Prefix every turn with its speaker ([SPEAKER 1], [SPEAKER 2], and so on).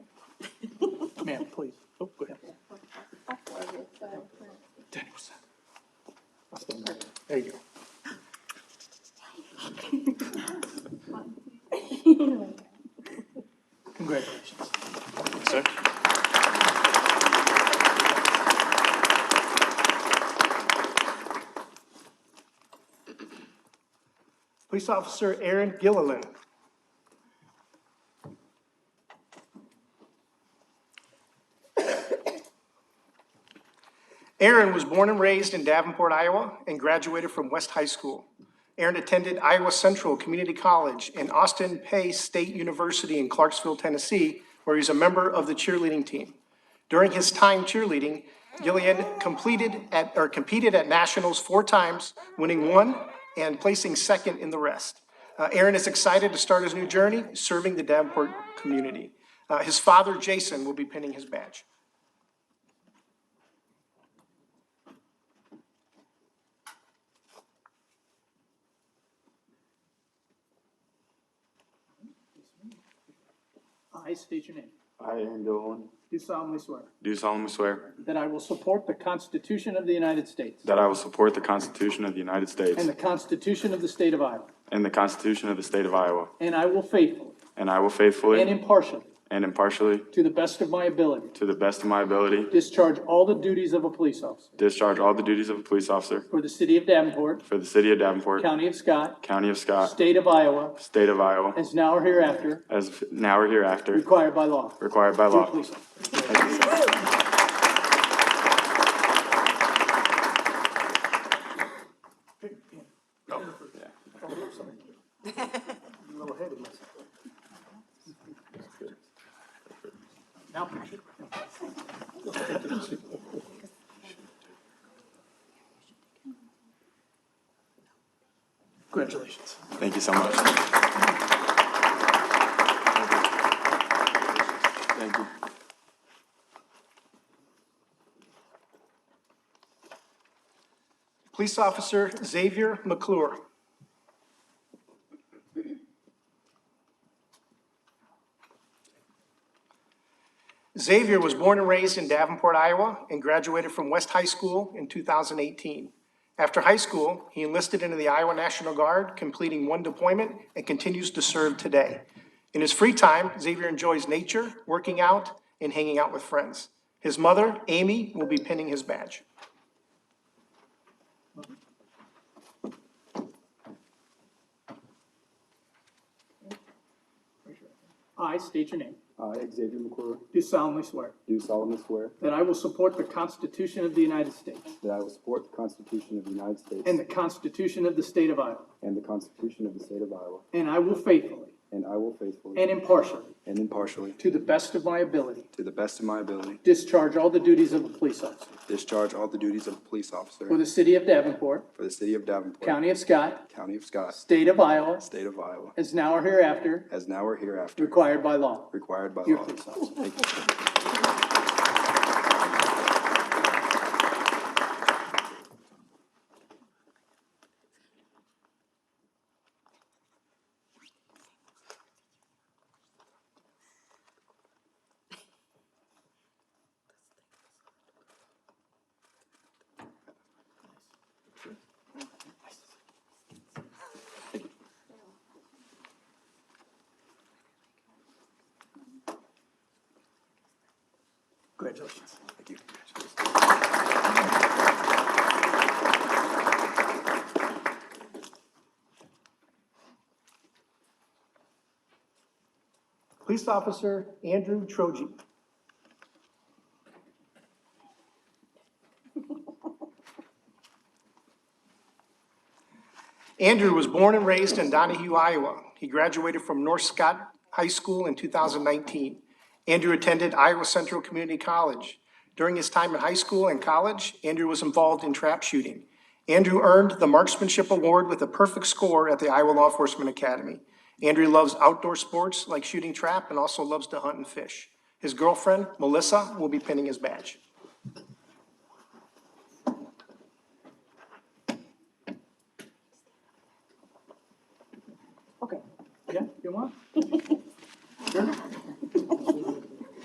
[SPEAKER 1] Ma'am, please. Oh, go ahead. Danielson. There you go. Congratulations. Sir? Police Officer Aaron Gilliland. Aaron was born and raised in Davenport, Iowa, and graduated from West High School. Aaron attended Iowa Central Community College and Austin Pay State University in Clarksville, Tennessee, where he was a member of the cheerleading team. During his time cheerleading, Gillian completed at, or competed at nationals four times, winning one and placing second in the rest. Uh, Aaron is excited to start his new journey, serving the Davenport community. Uh, his father, Jason, will be pinning his badge.
[SPEAKER 2] I state your name.
[SPEAKER 3] I, Aaron Dolan,
[SPEAKER 2] Do solemnly swear
[SPEAKER 3] do solemnly swear
[SPEAKER 2] that I will support the Constitution of the United States
[SPEAKER 3] that I will support the Constitution of the United States
[SPEAKER 2] and the Constitution of the State of Iowa,
[SPEAKER 3] and the Constitution of the State of Iowa,
[SPEAKER 2] and I will faithfully
[SPEAKER 3] and I will
[SPEAKER 2] and
[SPEAKER 3] faithfully
[SPEAKER 2] impartially,
[SPEAKER 3] and impartially,
[SPEAKER 2] to the best of my ability,
[SPEAKER 3] to the best of my ability,
[SPEAKER 2] discharge all the duties of a police officer
[SPEAKER 3] discharge all the duties of a police officer
[SPEAKER 2] for the City of Davenport,
[SPEAKER 3] for the City of Davenport,
[SPEAKER 2] County of Scott,
[SPEAKER 3] County of Scott,
[SPEAKER 2] State of Iowa,
[SPEAKER 3] State of Iowa,
[SPEAKER 2] as now or hereafter
[SPEAKER 3] as now or hereafter
[SPEAKER 2] required by law.
[SPEAKER 3] required by
[SPEAKER 2] True
[SPEAKER 3] law.
[SPEAKER 2] police officer. Now,
[SPEAKER 1] Congratulations.
[SPEAKER 3] Thank you so much. Thank you.
[SPEAKER 1] Police Officer Xavier McClure. Xavier was born and raised in Davenport, Iowa, and graduated from West High School in 2018. After high school, he enlisted into the Iowa National Guard, completing one deployment, and continues to serve today. In his free time, Xavier enjoys nature, working out, and hanging out with friends. His mother, Amy, will be pinning his badge.
[SPEAKER 2] I state your name.
[SPEAKER 4] I, Uh, Xavier McClure,
[SPEAKER 2] Do solemnly swear
[SPEAKER 4] do solemnly swear
[SPEAKER 2] that I will support the Constitution of the United States
[SPEAKER 4] that I will support the Constitution of the United States
[SPEAKER 2] and the Constitution of the State of Iowa,
[SPEAKER 4] and the Constitution of the State of Iowa,
[SPEAKER 2] and I will faithfully
[SPEAKER 4] and I will faithfully
[SPEAKER 2] and impartially,
[SPEAKER 4] and impartially,
[SPEAKER 2] to the best of my ability,
[SPEAKER 4] to the best of my ability,
[SPEAKER 2] discharge all the duties of a police officer
[SPEAKER 4] discharge all the duties of a police officer
[SPEAKER 2] for the City of Davenport,
[SPEAKER 4] for the City of Davenport,
[SPEAKER 2] County of Scott,
[SPEAKER 4] County of Scott,
[SPEAKER 2] State of Iowa,
[SPEAKER 4] State of Iowa,
[SPEAKER 2] as now or hereafter
[SPEAKER 4] as now or hereafter
[SPEAKER 2] required by law.
[SPEAKER 4] required by
[SPEAKER 2] Your
[SPEAKER 4] law.
[SPEAKER 2] police officer.
[SPEAKER 4] Thank you.
[SPEAKER 1] Congratulations.
[SPEAKER 4] Thank you.
[SPEAKER 1] Police Officer Andrew Troji. Andrew was born and raised in Donahue, Iowa. He graduated from North Scott High School in 2019. Andrew attended Iowa Central Community College. During his time in high school and college, Andrew was involved in trap shooting. Andrew earned the Marksmanship Award with a perfect score at the Iowa Law Enforcement Academy. Andrew loves outdoor sports like shooting trap and also loves to hunt and fish. His girlfriend, Melissa, will be pinning his badge.
[SPEAKER 2] Okay. Yeah, you want? Sure.